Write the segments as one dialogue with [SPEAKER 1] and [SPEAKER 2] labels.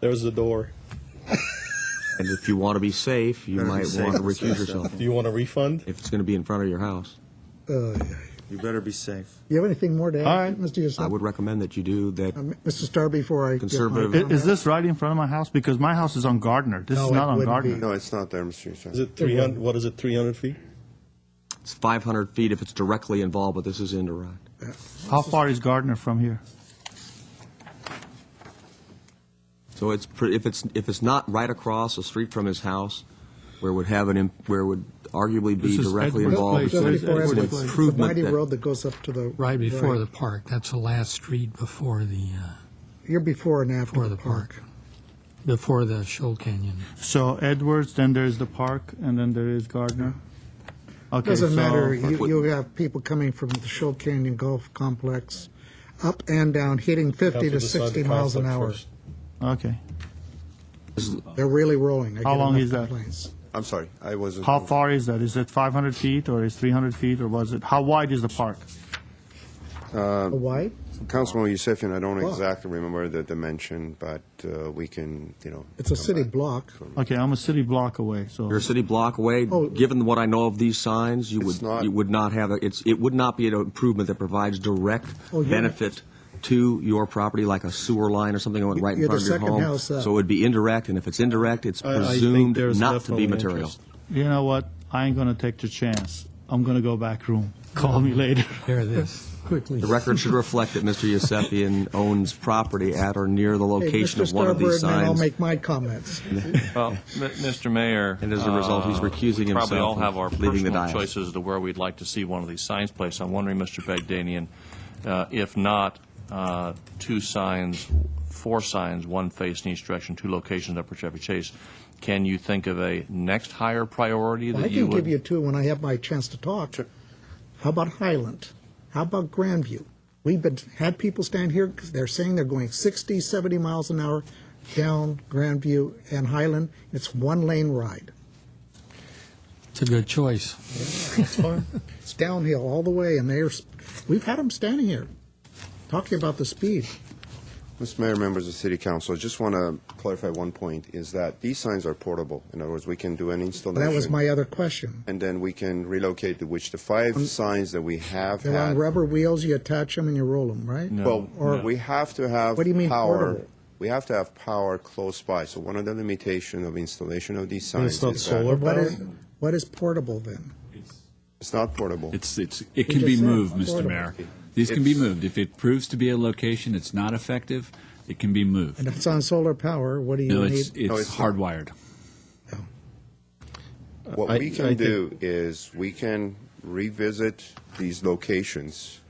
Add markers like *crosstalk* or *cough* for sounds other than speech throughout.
[SPEAKER 1] There's the door.
[SPEAKER 2] And if you want to be safe, you
[SPEAKER 3] Better be
[SPEAKER 2] might
[SPEAKER 3] safe
[SPEAKER 2] want to
[SPEAKER 3] than
[SPEAKER 2] recuse
[SPEAKER 3] sorry.
[SPEAKER 2] yourself
[SPEAKER 1] Do you want a refund?
[SPEAKER 2] if it's going to be in front of your house.
[SPEAKER 4] Uh, yeah.
[SPEAKER 3] You better be safe.
[SPEAKER 4] You have anything more to add,
[SPEAKER 5] All right.
[SPEAKER 4] Mr. Yusef?
[SPEAKER 2] I would recommend that you do that.
[SPEAKER 4] Um, Mr. Starr, before I get my
[SPEAKER 2] Conservative-
[SPEAKER 5] I-
[SPEAKER 4] comment.
[SPEAKER 5] Is this right in front of my house? Because my house is on Gardner. This
[SPEAKER 4] Mm-hmm. No,
[SPEAKER 5] is
[SPEAKER 4] it
[SPEAKER 5] not on
[SPEAKER 4] wouldn't be.
[SPEAKER 5] Gardner.
[SPEAKER 3] No, it's not there, Mr.
[SPEAKER 1] Is
[SPEAKER 3] Yusuf.
[SPEAKER 1] it 300? What is it, 300 feet?
[SPEAKER 2] It's 500 feet if it's directly involved, but this is indirect.
[SPEAKER 5] How far is Gardner from here?
[SPEAKER 2] So it's pre- if it's if it's not right across the street from his house, where it would have an imp- where it would arguably be
[SPEAKER 6] This is
[SPEAKER 2] directly
[SPEAKER 6] Edward
[SPEAKER 2] involved. it's
[SPEAKER 6] Place.
[SPEAKER 2] an-
[SPEAKER 6] Just before
[SPEAKER 2] it's an
[SPEAKER 6] Edward Place.
[SPEAKER 4] It's a
[SPEAKER 2] improvement
[SPEAKER 4] mighty
[SPEAKER 2] that-
[SPEAKER 4] road that goes up to the.
[SPEAKER 6] Right before the park. That's the last street before the uh,
[SPEAKER 4] You're before and after
[SPEAKER 6] before the park, before the Shoal Canyon.
[SPEAKER 5] So Edwards, then there is the park, and then there is Gardner. Okay,
[SPEAKER 4] Doesn't
[SPEAKER 5] so-
[SPEAKER 4] matter, you, you have people coming from the Shoal Canyon Golf Complex, up and down, hitting fifty
[SPEAKER 1] Have
[SPEAKER 4] to
[SPEAKER 1] decide
[SPEAKER 4] sixty
[SPEAKER 1] the
[SPEAKER 4] miles an
[SPEAKER 1] conflict
[SPEAKER 4] hour.
[SPEAKER 1] first.
[SPEAKER 5] Okay.
[SPEAKER 4] They're really rolling. I
[SPEAKER 5] How
[SPEAKER 4] get
[SPEAKER 5] long
[SPEAKER 4] enough
[SPEAKER 5] is that?
[SPEAKER 4] complaints.
[SPEAKER 3] I'm sorry, I wasn't.
[SPEAKER 5] How far is that? Is it 500 feet, or is 300 feet, or was it, how wide is the park?
[SPEAKER 2] Um,
[SPEAKER 4] Why?
[SPEAKER 3] Councilman Yusefian, I don't
[SPEAKER 4] Block.
[SPEAKER 3] exactly remember the dimension, but uh, we can, you know.
[SPEAKER 4] It's a
[SPEAKER 3] come
[SPEAKER 4] city
[SPEAKER 3] back.
[SPEAKER 4] block.
[SPEAKER 5] Okay, I'm a city block away, so.
[SPEAKER 2] You're a city block away.
[SPEAKER 4] Oh.
[SPEAKER 2] Given what I know of these signs, you would,
[SPEAKER 3] It's not-
[SPEAKER 2] you would not have, a- it's, it would not be an improvement that provides direct
[SPEAKER 4] Oh, you're-
[SPEAKER 2] benefit to your property, like a sewer line or something that went right in
[SPEAKER 4] You're
[SPEAKER 2] front of
[SPEAKER 4] the
[SPEAKER 2] your home.
[SPEAKER 4] second house up.
[SPEAKER 2] So it would be indirect, and if it's indirect, it's
[SPEAKER 1] I- I think
[SPEAKER 2] presumed
[SPEAKER 1] there's
[SPEAKER 2] not to
[SPEAKER 1] definitely
[SPEAKER 2] be material.
[SPEAKER 1] interest.
[SPEAKER 5] You know what? I ain't gonna take the chance. I'm gonna go back room. Call me later.
[SPEAKER 6] There it is. *laughs* Quickly.
[SPEAKER 2] The record
[SPEAKER 1] *laughs*
[SPEAKER 2] should reflect that Mr. Yusefian owns property at or near the
[SPEAKER 4] Hey,
[SPEAKER 2] location
[SPEAKER 4] Mr.
[SPEAKER 2] of one of
[SPEAKER 4] Starbird,
[SPEAKER 2] these
[SPEAKER 4] and then I'll
[SPEAKER 2] signs.
[SPEAKER 4] make my comments.
[SPEAKER 2] *laughs*
[SPEAKER 7] Well, M- Mr. Mayor.
[SPEAKER 2] And as a result, he's
[SPEAKER 7] uh,
[SPEAKER 2] recusing
[SPEAKER 7] we Probably all
[SPEAKER 2] himself and
[SPEAKER 7] have our
[SPEAKER 2] leaving the
[SPEAKER 7] personal
[SPEAKER 2] dais.
[SPEAKER 7] choices to where we'd like to see one of these signs placed. I'm wondering, Mr. Bagdanian, uh, if not, uh, two signs, four signs, one face in each direction, two locations up for Chevy Chase, can you think of a next higher priority
[SPEAKER 4] I
[SPEAKER 7] that you
[SPEAKER 4] can
[SPEAKER 7] would?
[SPEAKER 4] give you two when I have my chance to talk. How about Highland? How about Grandview? We've been, had people stand here, 'cause they're saying they're going 60, 70 miles an hour down Grandview and Highland. It's one lane ride.
[SPEAKER 6] It's a good choice.
[SPEAKER 4] It's downhill all the way, and they're, we've had them standing here talking about the speed.
[SPEAKER 3] Mr. Mayor, members of City Council, I just want to clarify one point, is that these signs are portable. In other words, we can do an installation.
[SPEAKER 4] That was my other question.
[SPEAKER 3] And then we can relocate, the- which the five signs that we have
[SPEAKER 4] They're on
[SPEAKER 3] had.
[SPEAKER 4] rubber wheels, you attach them and you roll them, right?
[SPEAKER 3] Well,
[SPEAKER 4] Or-
[SPEAKER 3] we have to have
[SPEAKER 4] What do you mean
[SPEAKER 3] power.
[SPEAKER 4] portable?
[SPEAKER 3] We have to have power close by. So one of the limitation of installation of these
[SPEAKER 1] And
[SPEAKER 3] signs
[SPEAKER 1] it's not
[SPEAKER 3] is that
[SPEAKER 1] solar
[SPEAKER 4] What
[SPEAKER 1] powered?
[SPEAKER 4] is, what is portable then?
[SPEAKER 3] it's not portable.
[SPEAKER 8] It's, it's, it can
[SPEAKER 4] just
[SPEAKER 8] be
[SPEAKER 4] said
[SPEAKER 8] moved, Mr.
[SPEAKER 4] affordable.
[SPEAKER 8] Mayor. These can be
[SPEAKER 3] It's-
[SPEAKER 8] moved. If it proves to be a location that's not effective, it can be moved.
[SPEAKER 4] And if it's on solar power, what do you
[SPEAKER 8] No,
[SPEAKER 4] need?
[SPEAKER 8] it's,
[SPEAKER 3] No,
[SPEAKER 8] it's
[SPEAKER 3] it's-
[SPEAKER 8] hardwired.
[SPEAKER 3] What
[SPEAKER 1] I-
[SPEAKER 3] we can
[SPEAKER 1] I think-
[SPEAKER 3] do is we can revisit these locations.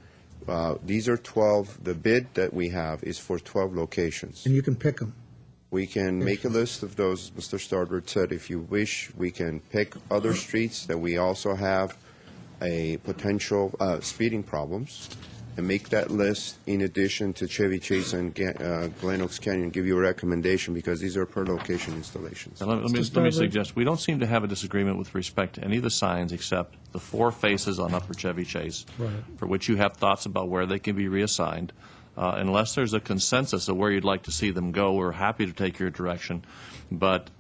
[SPEAKER 3] Uh, these are 12. The bid that we have is for 12 locations.
[SPEAKER 4] and you can pick them.
[SPEAKER 3] We can make a list of those, Mr. Starbird said. If you wish, we can pick other streets that we also have a potential uh, speeding problems and make that list in addition to Chevy Chase and Ga- uh, Glen Oaks Canyon, give you a recommendation because these are per location installations.
[SPEAKER 7] Now, Let let me,
[SPEAKER 4] Mr.
[SPEAKER 7] let me
[SPEAKER 4] Starbird?
[SPEAKER 7] suggest, we don't seem to have a disagreement with respect to any of the signs except the four faces on Upper Chevy Chase, for which you have thoughts about where they can be reassigned. Uh, Unless there's a consensus of where you'd like to see them go, we're happy to take your direction. But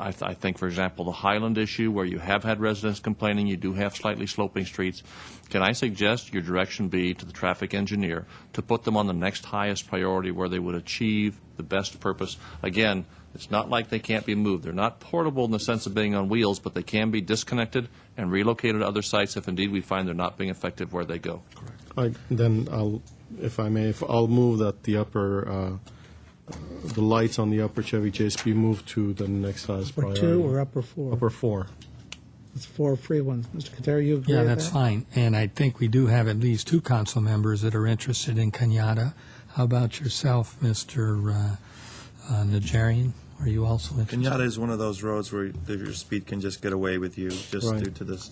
[SPEAKER 7] I, th- I think, for example, the Highland issue, where you have had residents complaining, you do have slightly sloping streets. Can I suggest your direction be to the traffic engineer to put them on the next highest priority where they would achieve the best purpose? Again, it's not like they can't be moved. They're not portable in the sense of being on wheels, but they can be disconnected and relocated to other sites if indeed we find they're not being effective where they go.
[SPEAKER 1] I, then I'll, if I may, if I'll move that the upper, uh, the lights on the upper Chevy Chase be moved to the next highest
[SPEAKER 4] Or
[SPEAKER 1] priority.
[SPEAKER 4] two or upper four?
[SPEAKER 1] Upper four.
[SPEAKER 4] It's four free ones. Mr. Katera, you agree
[SPEAKER 6] Yeah,
[SPEAKER 4] with
[SPEAKER 6] that's
[SPEAKER 4] that?
[SPEAKER 6] fine. And I think we do have at least two council members that are interested in Kenyatta. How about yourself, Mr. uh, uh, Najarian? Are you also interested?
[SPEAKER 9] Pinata is one of those roads where your speed can just get away with you, just
[SPEAKER 1] Right.
[SPEAKER 9] due to the s-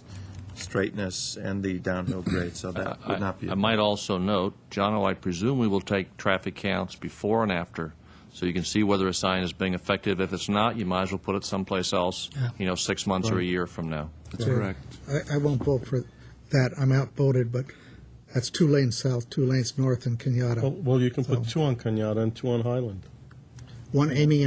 [SPEAKER 9] straightness and the downhill grade, so that
[SPEAKER 7] I-
[SPEAKER 9] would not be.
[SPEAKER 7] I might also note, Jono, I presume we will take traffic counts before and after, so you can see whether a sign is being effective. If it's not, you might as well put it someplace else,
[SPEAKER 6] Yeah.
[SPEAKER 7] you know, six months or a year from now.
[SPEAKER 8] That's correct.
[SPEAKER 4] I, I won't vote for that. I'm outvoted, but that's two lanes south, two lanes north in Kenyatta.
[SPEAKER 1] Well, well, you can put two on Kenyatta and two on Highland.
[SPEAKER 4] One aiming